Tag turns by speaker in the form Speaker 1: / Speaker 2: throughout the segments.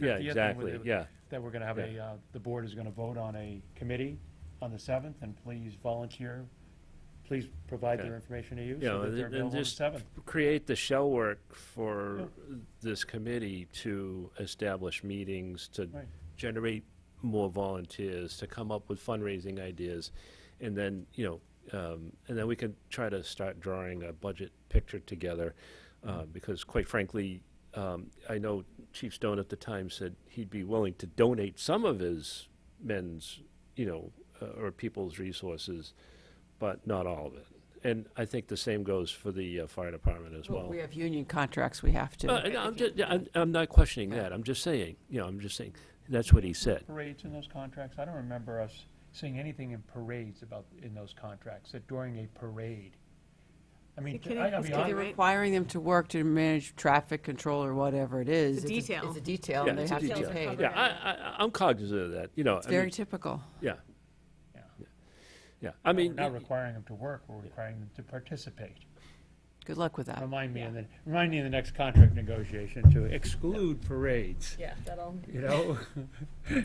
Speaker 1: Yeah,
Speaker 2: 150th, and
Speaker 1: exactly,
Speaker 2: with-
Speaker 1: yeah.
Speaker 2: That we're going to have a,
Speaker 1: Yeah.
Speaker 2: uh, the board is going to vote on a committee on the 7th, and please volunteer, please provide
Speaker 1: Okay.
Speaker 2: their information to you
Speaker 1: Yeah,
Speaker 2: so that
Speaker 1: and-
Speaker 2: they're
Speaker 1: and
Speaker 2: available on the
Speaker 1: just-
Speaker 2: 7th.
Speaker 1: create the shell work for this committee to establish meetings, to
Speaker 2: Right.
Speaker 1: generate more volunteers, to come up with fundraising ideas, and then, you know, um, and then we can try to start drawing a budget picture together, uh, because quite frankly, um, I know Chief Stone at the time said he'd be willing to donate some of his men's, you know, uh, or people's resources, but not all of it. And I think the same goes for the uh, fire department as well.
Speaker 3: We have union contracts we have
Speaker 1: Uh,
Speaker 3: to.
Speaker 1: no, I'm just, I'm, I'm not questioning that, I'm just saying, you know, I'm just saying, that's what he said.
Speaker 2: Parades in those contracts, I don't remember us seeing anything in parades about, in those contracts, that during a parade. I mean,
Speaker 4: You're kidding?
Speaker 2: I gotta
Speaker 4: It's
Speaker 2: be
Speaker 4: gonna be
Speaker 2: honest.
Speaker 3: They're
Speaker 4: Right.
Speaker 3: requiring them to work to manage traffic control or whatever it is.
Speaker 4: It's a
Speaker 3: It's
Speaker 4: detail.
Speaker 3: It's a detail,
Speaker 1: Yeah,
Speaker 3: and they
Speaker 1: it's a
Speaker 3: have to be
Speaker 1: detail.
Speaker 3: paid.
Speaker 1: Yeah, I, I, I'm cognizant of that, you know,
Speaker 3: It's
Speaker 1: I mean,
Speaker 3: very typical.
Speaker 1: yeah,
Speaker 2: Yeah.
Speaker 1: yeah, I
Speaker 2: We're
Speaker 1: mean,
Speaker 2: not requiring them to work, we're requiring them to participate.
Speaker 3: Good luck with
Speaker 1: Um,
Speaker 3: that.
Speaker 2: Remind me, in the remind me in the next contract negotiation to exclude parades,
Speaker 4: Yeah, that'll.
Speaker 2: you know?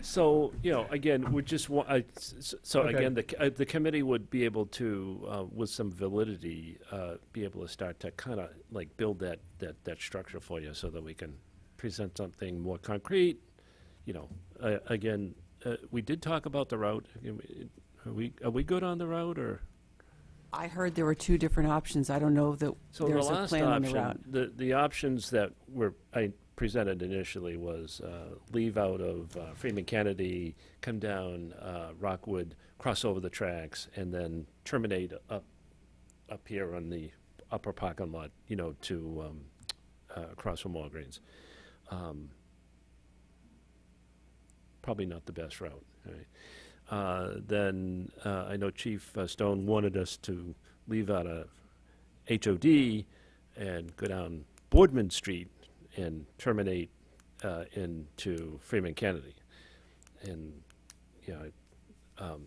Speaker 1: so, you know, again, we just want, I, s- so
Speaker 2: Okay.
Speaker 1: again, the, c- uh, the committee would be able to, uh, with some validity, uh, be able to start to kind of like build that, that, that structure for you so that we can present something more concrete, you know, uh, again, uh, we did talk about the route, Again, we- are we, are we good on the route or?
Speaker 3: I heard there were two different options. I don't know that
Speaker 1: So the
Speaker 3: there's a
Speaker 1: last
Speaker 3: plan on the route.
Speaker 1: option, the, the options that were, I presented initially was uh, leave out of uh, Freeman Kennedy, come down uh, Rockwood, cross over the tracks, and then terminate up, up here on the upper parking lot, you know, to, um, uh, across from Walgreens. Um, Probably not the best route, right? Uh, Then, uh, I know Chief uh, Stone wanted us to leave out of HOD and go down Boardman Street and terminate uh, into Freeman Kennedy. And, you know, I- um,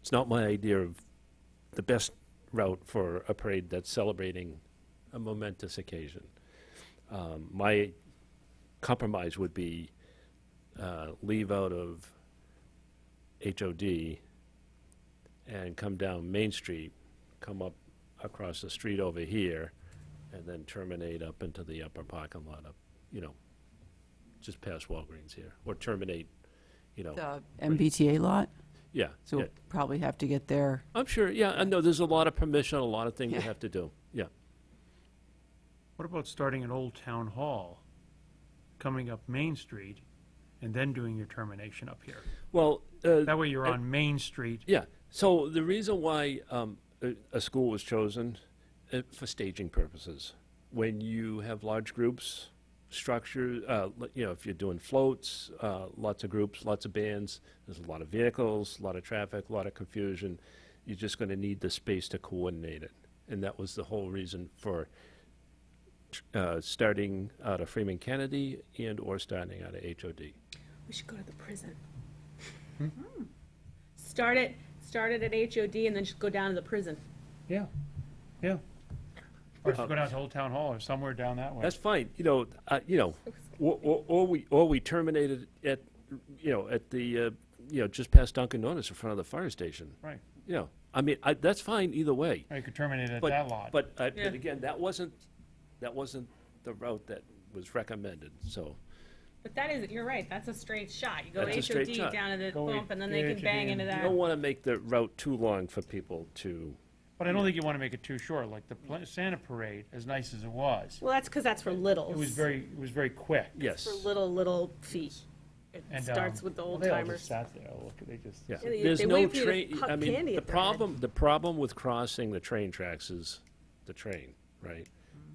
Speaker 1: it's not my idea of the best route for a parade that's celebrating a momentous occasion. Um, My compromise would be uh, leave out of HOD and come down Main Street, come up across the street over here, and then terminate up into the upper parking lot up, you know, just past Walgreens here, or terminate, you know,
Speaker 3: The MBTA lot,
Speaker 1: yeah.
Speaker 3: so
Speaker 1: yeah.
Speaker 3: we'll probably have to get there.
Speaker 1: I'm sure, yeah, I know, there's a lot of permission, a lot of things you
Speaker 3: Yeah.
Speaker 1: have to do, yeah.
Speaker 5: What about starting an old town hall, coming up Main Street, and then doing your termination up here?
Speaker 1: Well, uh,
Speaker 5: That way you're on Main Street.
Speaker 1: Yeah. So the reason why um, a, a school was chosen uh, for staging purposes, when you have large groups, structure, uh, li- you know, if you're doing floats, uh, lots of groups, lots of bands, there's a lot of vehicles, a lot of traffic, a lot of confusion. You're just going to need the space to coordinate it, and that was the whole reason for tr- uh, starting out of Freeman Kennedy and or starting out of HOD.
Speaker 4: We should go to the prison. Hmm. Start it, start it at HOD and then just go down to the prison.
Speaker 2: Yeah, yeah. Or just go down to Old Town Hall or somewhere down that way.
Speaker 1: That's fine, you know, uh, you know, or, or, or we, or we terminated at, you know, at the, uh, you know, just past Dunkin' Donuts in front of the fire station,
Speaker 2: Right.
Speaker 1: you know, I mean, I, that's fine either way.
Speaker 2: Or you could terminate at
Speaker 1: But,
Speaker 2: that lot.
Speaker 1: but, uh,
Speaker 4: Yeah.
Speaker 1: but again, that wasn't, that wasn't the route that was recommended, so,
Speaker 4: But that is, you're right, that's a straight shot. You go
Speaker 1: That's a straight
Speaker 4: HOD
Speaker 1: shot.
Speaker 4: down to the
Speaker 2: Go
Speaker 4: bump and then they can
Speaker 2: HOD
Speaker 4: bang
Speaker 2: and-
Speaker 4: into
Speaker 1: you
Speaker 4: that.
Speaker 1: don't wanna make the route too long for people to,
Speaker 2: But I don't think you want to make it too short, like the pla- Santa Parade, as nice as it was,
Speaker 4: Well, that's because that's for littles.
Speaker 2: it was very, it was very quick.
Speaker 1: yes.
Speaker 4: For little, little feet. It
Speaker 2: And,
Speaker 4: starts
Speaker 2: um,
Speaker 4: with the
Speaker 2: well,
Speaker 4: old
Speaker 2: they all just
Speaker 4: timers.
Speaker 2: Sat there, oh, look, they just.
Speaker 1: Yeah,
Speaker 4: Yeah, they-
Speaker 1: there's
Speaker 4: they
Speaker 1: no
Speaker 4: wave you to
Speaker 1: train,
Speaker 4: pop
Speaker 1: I mean,
Speaker 4: candy
Speaker 1: the
Speaker 4: at their head.
Speaker 1: problem, the problem with crossing the train tracks is the train, right?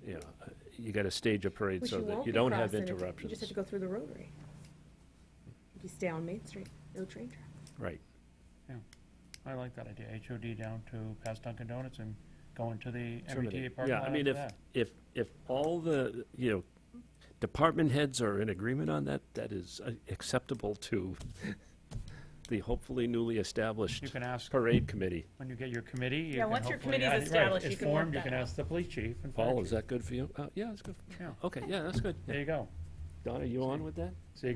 Speaker 1: You know, uh, you gotta stage a parade
Speaker 4: Mm-hmm. Which
Speaker 1: so that
Speaker 4: won't
Speaker 1: you
Speaker 4: be
Speaker 1: don't have
Speaker 4: crossing if- You
Speaker 1: interruptions,
Speaker 4: just have to go through the rotary. If you stay on Main Street, no train track.
Speaker 1: right?
Speaker 2: I like that idea, HOD down to past Dunkin' Donuts and going to the MBTA
Speaker 1: Terminate.
Speaker 2: parking
Speaker 1: Yeah,
Speaker 2: lot
Speaker 1: I mean,
Speaker 2: after
Speaker 1: if,
Speaker 2: that.
Speaker 1: if, if all the, you know, department heads are in agreement on that, that is uh, acceptable to the hopefully newly established
Speaker 2: You can ask
Speaker 1: parade committee.
Speaker 2: when you get your committee. you
Speaker 4: Yeah,
Speaker 2: can
Speaker 4: once your
Speaker 2: hopefully-
Speaker 4: committee's
Speaker 2: I- right,
Speaker 4: established,
Speaker 2: it's
Speaker 4: you can work
Speaker 2: formed, You
Speaker 4: that
Speaker 2: can
Speaker 4: out.
Speaker 2: ask the police chief. and fire
Speaker 1: Paul,
Speaker 2: chief.
Speaker 1: is that good for you? Uh, yeah, that's good.
Speaker 2: Yeah.
Speaker 1: Okay, yeah, that's good.
Speaker 2: There you go.
Speaker 1: Donna, you on with that?